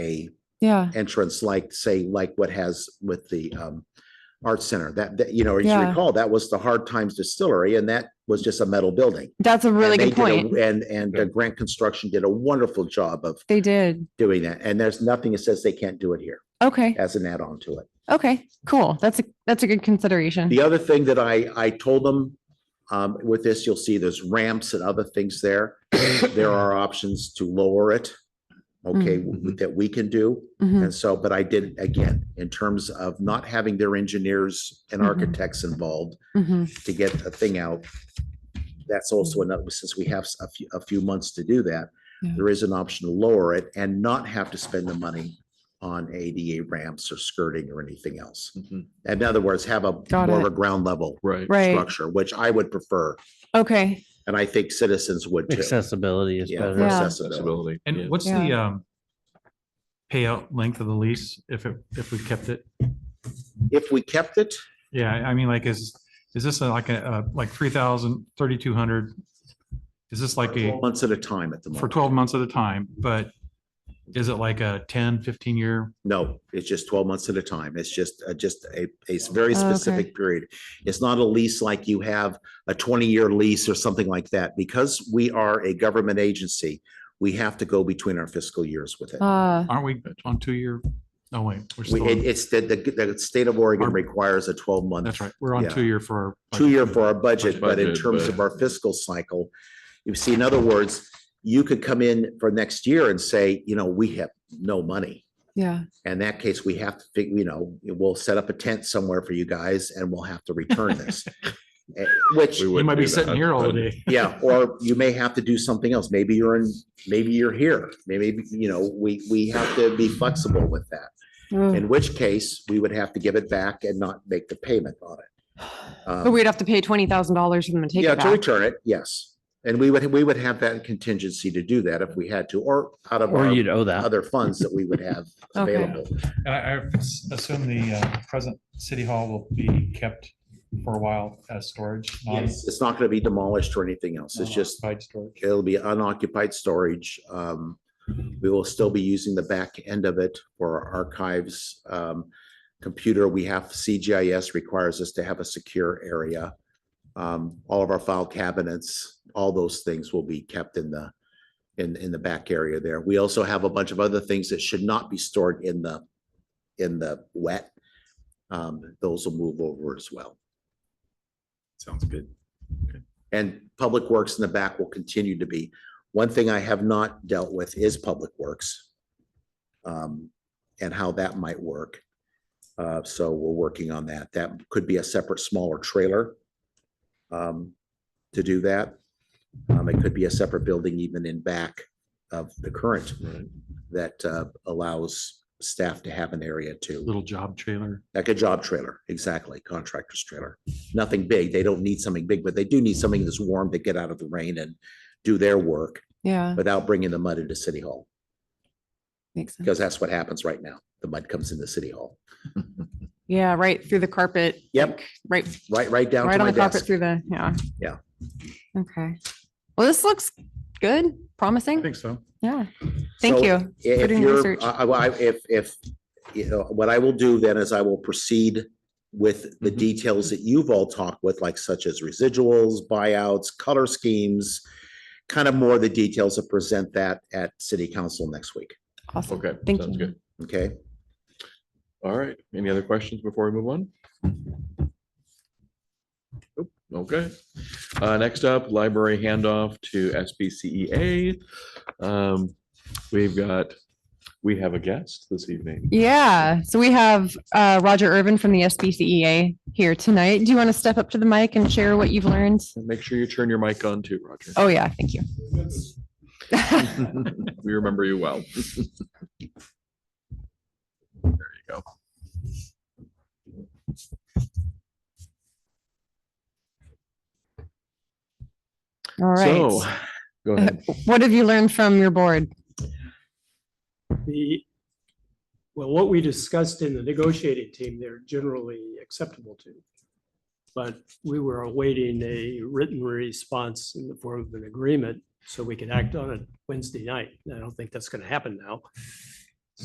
a Yeah, entrance like, say, like what has with the um Arts Center, that, that, you know, as you Yeah. recall, that was the Hard Times Distillery and that was just a metal building. that's a really And good they did a- point. And, and uh, Grant Construction did a wonderful job of They did. doing that. And there's nothing that says they can't do it here Okay. as an add-on to it. Okay, cool. That's a, that's a good consideration. The other thing that I, I told them um, with this, you'll see there's ramps and other things there. There are options to lower it. Okay, Mm-hmm. Mhm. that we can do. Mhm. And so, but I did, again, in terms of not having their engineers and Mhm. architects involved Mhm. to get a thing out. That's also another, since we have a few, a few months to do that, Yeah. there is an option to lower it and not have to spend the money on ADA ramps or skirting or anything else. Mhm. In other words, have a Got more of it. a ground level Right. Right. structure, which I would prefer, Okay. and I think citizens would too. Accessibility is Yeah, better. for Yeah. accessibility. yeah. And what's Yeah. the um payout length of the lease if it, if we kept it? If we kept it, Yeah, I mean, like, is, is this like a, uh, like three thousand, thirty-two hundred? Is this like a, months at a time at the for moment. twelve months at a time, but is it like a 10, 15 year? No, it's just twelve months at a time. It's just, uh, just a, a s- very Oh, okay. specific period. It's not a lease like you have a twenty-year lease or something like that. Because we are a government agency, we have to go between our fiscal years with it. Uh, Aren't we on two year? No, wait, we're We, still, it- on- it's that the, the state of Oregon Our- requires a twelve-month. that's right. We're on yeah. two year for. our- two year for our budget, but in Budget, terms of but- our fiscal cycle, you see, in other words, you could come in for next year and say, you know, we have no money. yeah. In that case, we have to, fig- you know, we'll set up a tent somewhere for you guys and we'll have to return this. Eh, Which, We We wouldn't might be do that, sitting here all but- day. yeah, or you may have to do something else. Maybe you're in, maybe you're here. Maybe, you know, we, we have to be flexible with that. Ugh. In which case, we would have to give it back and not make the payment on it. Um, But Oh, we'd have to pay twenty thousand dollars for them to take Yeah, it to back. return it, yes. And we would, we would have that contingency to do that if we had to, or out of Or our you'd owe that. other funds that we would have Okay. available. And I, I assume the uh, present city hall will be kept for a while as storage. not- Yes, Um, it's not going to be demolished or anything else. It's just, Occupied storage. it'll be unoccupied storage. Um, We will still be using the back end of it for our archives. Um, Computer, we have CGIS requires us to have a secure area. Um, All of our file cabinets, all those things will be kept in the, in, in the back area there. We also have a bunch of other things that should not be stored in the, in the wet. Um, Those will move over as well. Sounds good. And Public Works in the back will continue to be. One thing I have not dealt with is Public Works. um, And how that might work. Uh, So we're working on that. That could be a separate smaller trailer um, to do that. Um, It could be a separate building even in back of the current Right. that uh, allows staff to have an area to, Little job trailer. like a job trailer, exactly, contractor's trailer. Nothing big. They don't need something big, but they do need something that's warm to get out of the rain and do their work Yeah, without bringing the mud into City Hall, makes sense. because that's what happens right now. The mud comes into City Hall. Yeah, right through the carpet. Yep, Right, right, right down to right on my the carpet desk. through the, yeah. Yeah. Okay. Well, this looks good, I promising. think so. Yeah. Thank So you. If doing you're, research. I, I- I- if, if, you know, what I will do then is I will proceed with the Mm-hmm. Mhm. details that you've all talked with, like such as residuals, buyouts, color schemes, kind of more the details to present that at city council next week, Awesome. Okay. Thank sounds you. good. okay? All right. Any other questions before we move on? Nope. Okay. Uh, next up, library handoff to SBCEA. E Um, we've got, we have a guest this evening. Yeah, so we have uh, Roger Irvin from the SBCEA E here tonight. Do you want to step up to the mic and share what you've learned? Make sure you turn your mic on too, Roger. Oh, yeah, thank you. We remember you well. There you go. All So, right. go ahead. What have you learned from your board? The, well, what we discussed in the negotiating team, they're generally acceptable to. But we were awaiting a written response in the form of an agreement so we could act on it Wednesday night. I don't think that's going to happen now.